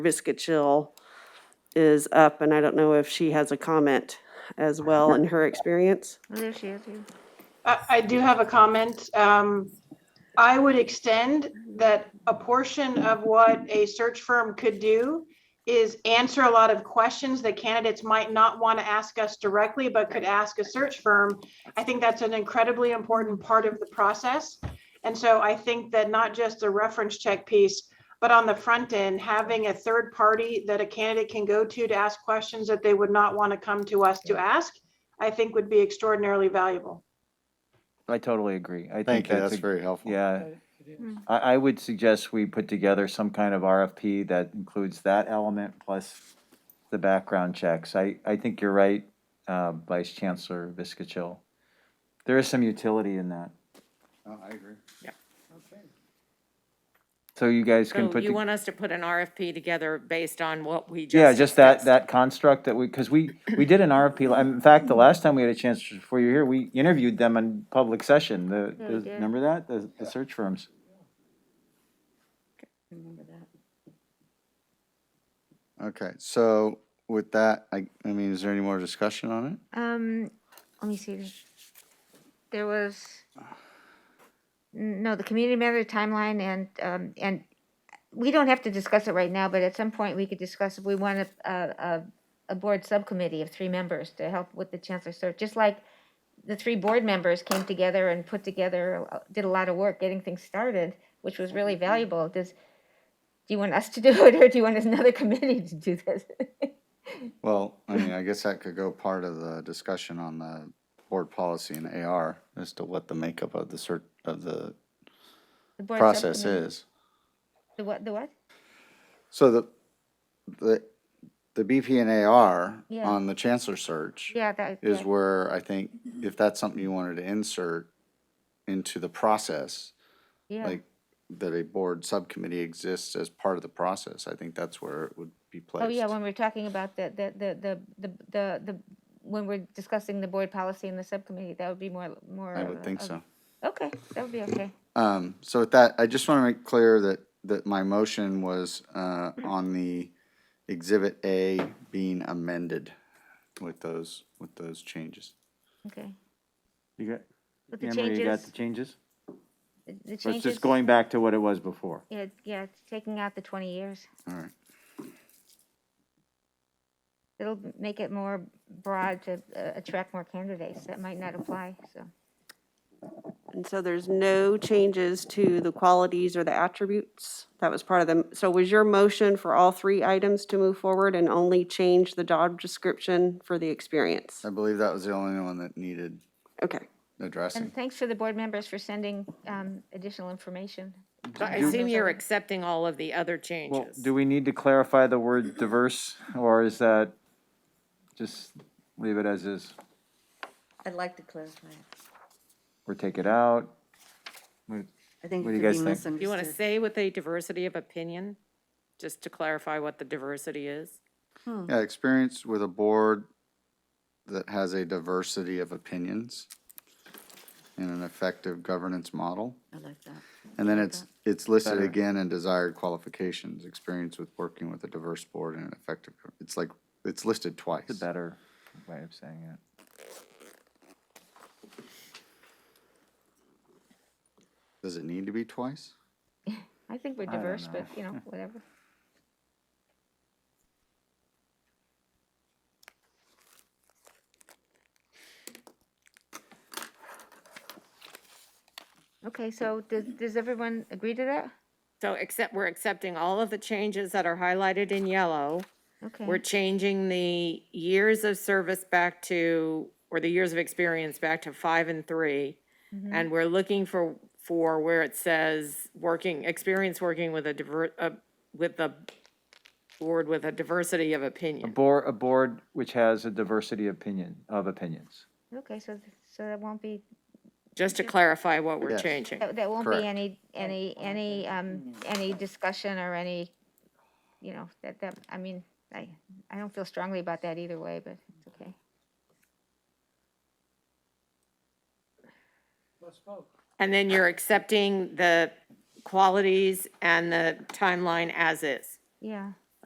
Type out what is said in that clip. Biscuit Chill is up, and I don't know if she has a comment as well in her experience. There she is. yeah. I, I do have a comment. Um, I would extend that a portion of what a search firm could do is answer a lot of questions that candidates might not want to ask us directly, but could ask a search firm. I think that's an incredibly important part of the process. And so I think that not just the reference check piece, but on the front end, having a third party that a candidate can go to to ask questions that they would not want to come to us to ask, I think would be extraordinarily valuable. I totally agree. I think Thank you, that's that's a, very helpful. yeah. I, I would suggest we put together some kind of RFP that includes that element plus the background checks. I, I think you're right, uh, Vice Chancellor Viscachill. There is some utility in that. Oh, I agree. So you guys can So put, Oh, you the- want us to put an RFP together based on what we just. yeah, just that, discussed. that construct that we, because we, we did an RFP. la- In fact, the last time we had a chance before you were here, we interviewed them in public session. The, Yeah, we the- did. remember that? The, the search firms. Remember that. Okay, so with that, I, I mean, is there any more discussion on it? Um, let me see. There was, no, the community matter timeline and, um, and we don't have to discuss it right now, but at some point we could discuss if we want a, a, a- a board subcommittee of three members to help with the chancellor search, just like the three board members came together and put together, uh, did a lot of work getting things started, which was really valuable. Does, do you want us to do it or do you want another committee to do this? Well, I mean, I guess that could go part of the discussion on the board policy and AR as to what the makeup of the cert, of the The board process subcommittee. is. The what, the what? So the, the, the BP and AR Yeah. on the chancellor search Yeah, that. is yeah. where I think if that's something you wanted to insert into the process, Yeah, like that a board subcommittee exists as part of the process, I think that's where it would be placed. oh yeah, when we're talking about the, the, the, the, the, the, the, when we're discussing the board policy and the subcommittee, that would be more, more. I of would a- think of- so. Okay, that would be okay. Um, so with that, I just want to make clear that, that my motion was, uh, on the exhibit A being amended with those, with those changes. Okay. You got, But the Anne Marie, you got changes, the changes? the- the So it's changes, just going back to what it was before. yeah, yeah, it's taking out the twenty years. All right. It'll make it more broad to uh, attract more candidates that might not apply, so. And so there's no changes to the qualities or the attributes? That was part of them. So was your motion for all three items to move forward and only change the job description for the experience? I believe that was the only one that needed Okay. addressing. And thanks for the board members for sending, um, additional information. So I assume you're accepting all of the other Well, changes. do we need to clarify the word diverse, or is that, just leave it as is, I'd like to clarify. it. or take it out? We- I think What it do you could be guys think? misunderstood. You want to say with a diversity of opinion, just to clarify what the diversity is? Yeah, experience with a board that has a diversity of opinions and an effective governance model. I like that. And then it's, it's listed Better. again in desired qualifications, experience with working with a diverse board and an effective, it's like, it's listed twice. It's a better way of saying it. Does it need to be twice? I think we're I don't diverse, know. but, you know, whatever. Okay, so does, does everyone agree to that? So except, we're accepting all of the changes that are highlighted in yellow. We're Okay, changing the years of service back to, or the years of experience back to five and three. And we're looking for, for where it says, working, experience working with a diver, uh, with a board with a diversity of A opinion. board, a board which has a diversity opinion, of opinions. okay, so, so that won't be, Just to clarify what we're Yes. changing. that that won't Correct. be any, any, any, Mm. um, any discussion or any, you know, that, that, I mean, I, I don't feel strongly about that either way, but it's okay. And then you're accepting the qualities and the timeline as is. Yeah,